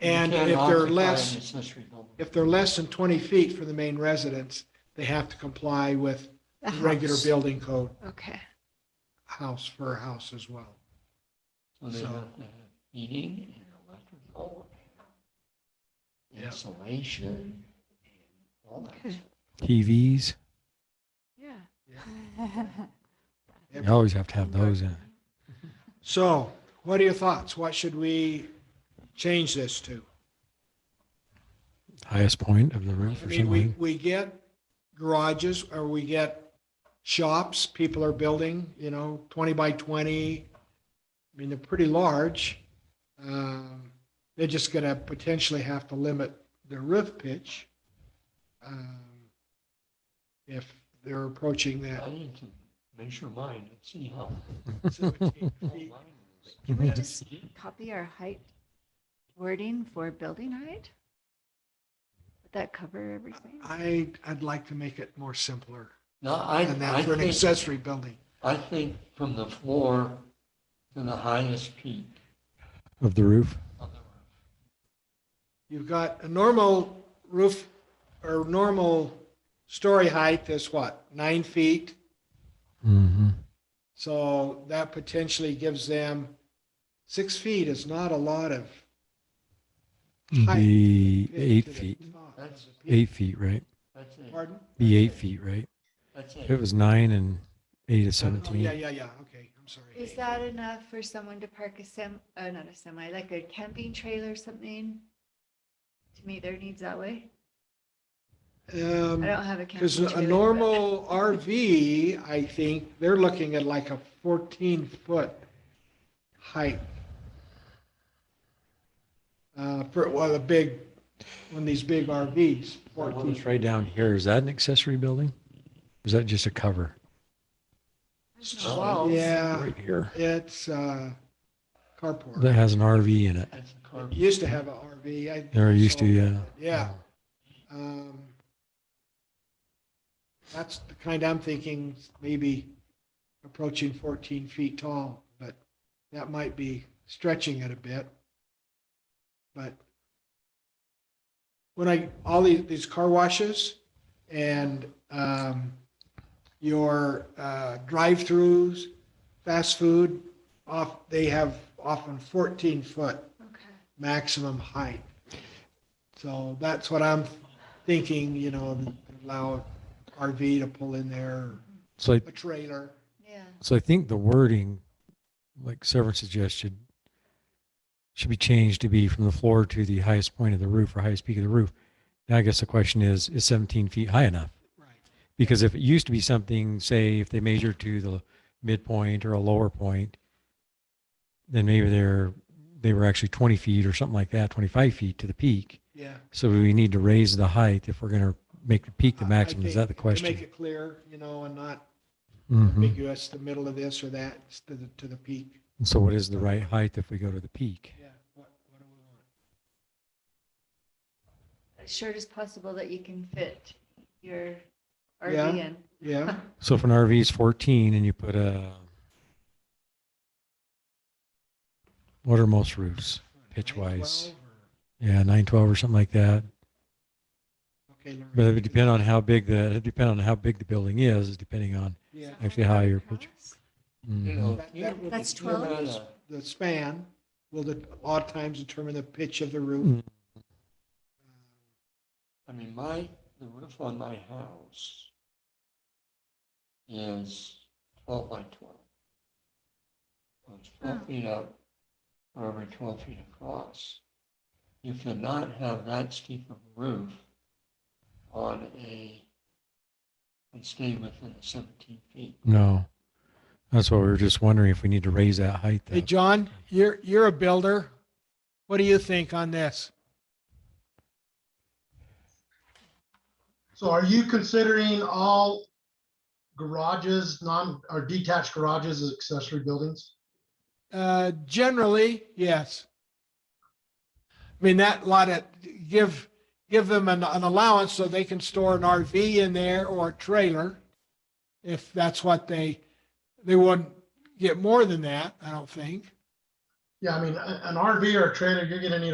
And You can't if they're occupy an less, accessory building. if they're less than 20 feet from the main residence, they have to comply with The regular house. building code, Okay. house for a house as well. So they So- have to have heating and electrical, Yeah. insulation, and all that. Okay. stuff. TVs. Yeah. You always have to have those in. So what are your thoughts? What should we change this to? Highest point of the roof I or mean, we, something. we get garages or we get shops, people are building, you know, 20 by 20. I mean, they're pretty large. Um, They're just going to potentially have to limit their roof pitch um, if they're approaching I that need to measure mine and see how 17 tall feet. mine is. Can we just copy our height wording for building height? Would that cover everything? I, I'd like to make it more simpler No, I, than I that for an think, accessory building. I think from the floor to the highest peak Of the roof. of the roof. You've got a normal roof or normal story height that's what, nine feet? Mm-hmm. So that potentially gives them, six feet is not a lot of. Height. Be pitch eight to the feet. top. That's, Eight feet, right? that's it. Pardon? Be eight feet, right? That's If it it. was nine and eight is Oh, Yeah, seventeen. yeah, yeah, okay, I'm sorry. Is that enough for someone to park a sem, uh, not a semi, like a camping trailer or something? To meet their needs that way? Um, I don't have a camping Because trailer. a but- normal RV, I think, they're looking at like a 14-foot height. Uh, For, well, a big, one of these big RVs, That one 14 that's Right down here, is that an accessory building? Or Is that just a cover? There's no walls. Oh, Yeah, Right here. it's uh, carport. That has an RV in it. That's a car. It Used to have an RV. I- There used to, so- Yeah. yeah. um, That's the kind I'm thinking, maybe approaching 14 feet tall, but that might be stretching it a bit. But when I, all these, these car washes and um, your uh, drive-throughs, fast food, off, they have often 14-foot Okay. maximum height. So that's what I'm thinking, you know, allow an RV to pull in there, So I, a trailer. Yeah. so I think the wording, like Severin suggested, should be changed to be from the floor to the highest point of the roof or highest peak of the roof. Now, I guess the question is, is seventeen feet high enough? Right. Because if it used to be something, say, if they measure to the midpoint or a lower point, then maybe they're, they were actually 20 feet or something like that, 25 feet to the peak. Yeah. So we need to raise the height if we're going to make the peak the I- I maximum. Is think that the To make question? it clear, you know, and not Mhm. ambiguous, the middle of this or that, it's to the, to the peak. And So what is the right height if we go to the peak? Yeah. What, what do we want? As short as possible that you can fit your Yeah. RV in. Yeah. So if an RV is 14 and you put a, what are most roofs? Pitch wise. 912 or- Yeah, 912 or something like that. Okay. Lorraine. But it would depend on how big the, it depend on how big the building is, depending on, Yeah. Actually, how your pitch- You Mhm. know, That- if you- that will That's if you're 12 at inch? a- The span will de- a lot of times determine the pitch of the roof. Mm. I mean, my, the roof on my house is twelve by twelve. So It's Huh. twelve feet up, or every twelve feet across. You cannot have that steep of a roof on a, and stay within the seventeen feet. No. That's what we were just wondering if we need to raise that height. Hey, though. John, you're, you're a builder. What do you think on this? So are you considering all garages, non, or detached garages as accessory buildings? Uh, generally, yes. I mean, that lot of, give, give them an, an allowance so they can store an RV in there or a trailer. If that's what they, they wouldn't get more than that, I don't think. Yeah, I mean, a- an RV or a trailer, you're gonna need